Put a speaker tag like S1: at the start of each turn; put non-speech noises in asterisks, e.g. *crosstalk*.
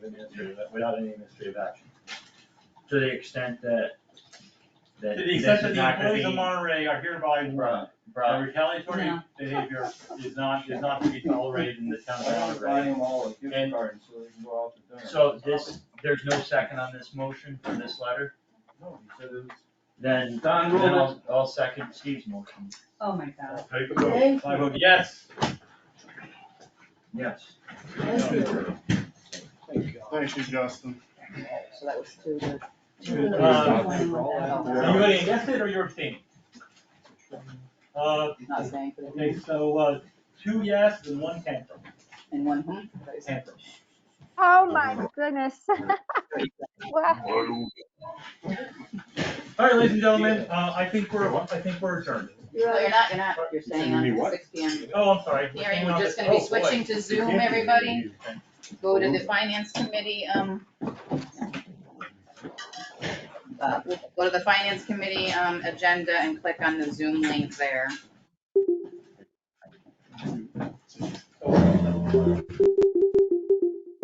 S1: administrative, without any administrative action. To the extent that, that
S2: To the
S1: this
S2: extent
S1: is
S2: that the
S1: not gonna
S2: employees of
S1: be.
S2: Monterey are hereby warned,
S1: Bro,
S2: that
S1: bro,
S2: retaliatory
S3: No.
S2: behavior is not, is not to be tolerated in the town of
S1: Why don't we
S2: Monterey.
S4: them all a gift
S1: And-
S4: card so they can go out to dinner.
S1: so this, there's no second on this motion for this letter,
S4: No, he said it was.
S1: then, then
S4: Don Rule.
S1: I'll, I'll second Steve's motion,
S3: Oh my god.
S5: Take a vote.
S3: Thank
S2: I
S3: you,
S2: vote yes.
S1: yes.
S3: thank you.
S5: Thank you, Justin.
S3: So that was two, the two Um,
S2: Good.
S3: of those
S2: Uh,
S3: are going
S2: Are
S3: with that.
S2: you voting against it or you're abstaining? Uh,
S3: Not staying for
S2: okay,
S3: the,
S2: so, uh, two yes and one cancel,
S3: and one who?
S2: cancel.
S6: Oh my goodness. *laughs* Wow.
S2: All right, ladies and gentlemen, uh, I think we're, I think we're adjourned.
S3: Well, Oh, you're not, you're not, you're staying on
S5: You mean
S3: till
S5: what?
S3: six P M.
S2: Oh, I'm sorry. We're
S3: Hearing,
S2: staying
S3: we're
S2: on
S3: just
S2: the-
S3: gonna be
S2: oh, boy.
S3: switching to Zoom, everybody. Go to the finance committee, um. uh, Go to the finance committee, um, agenda and click on the Zoom link there.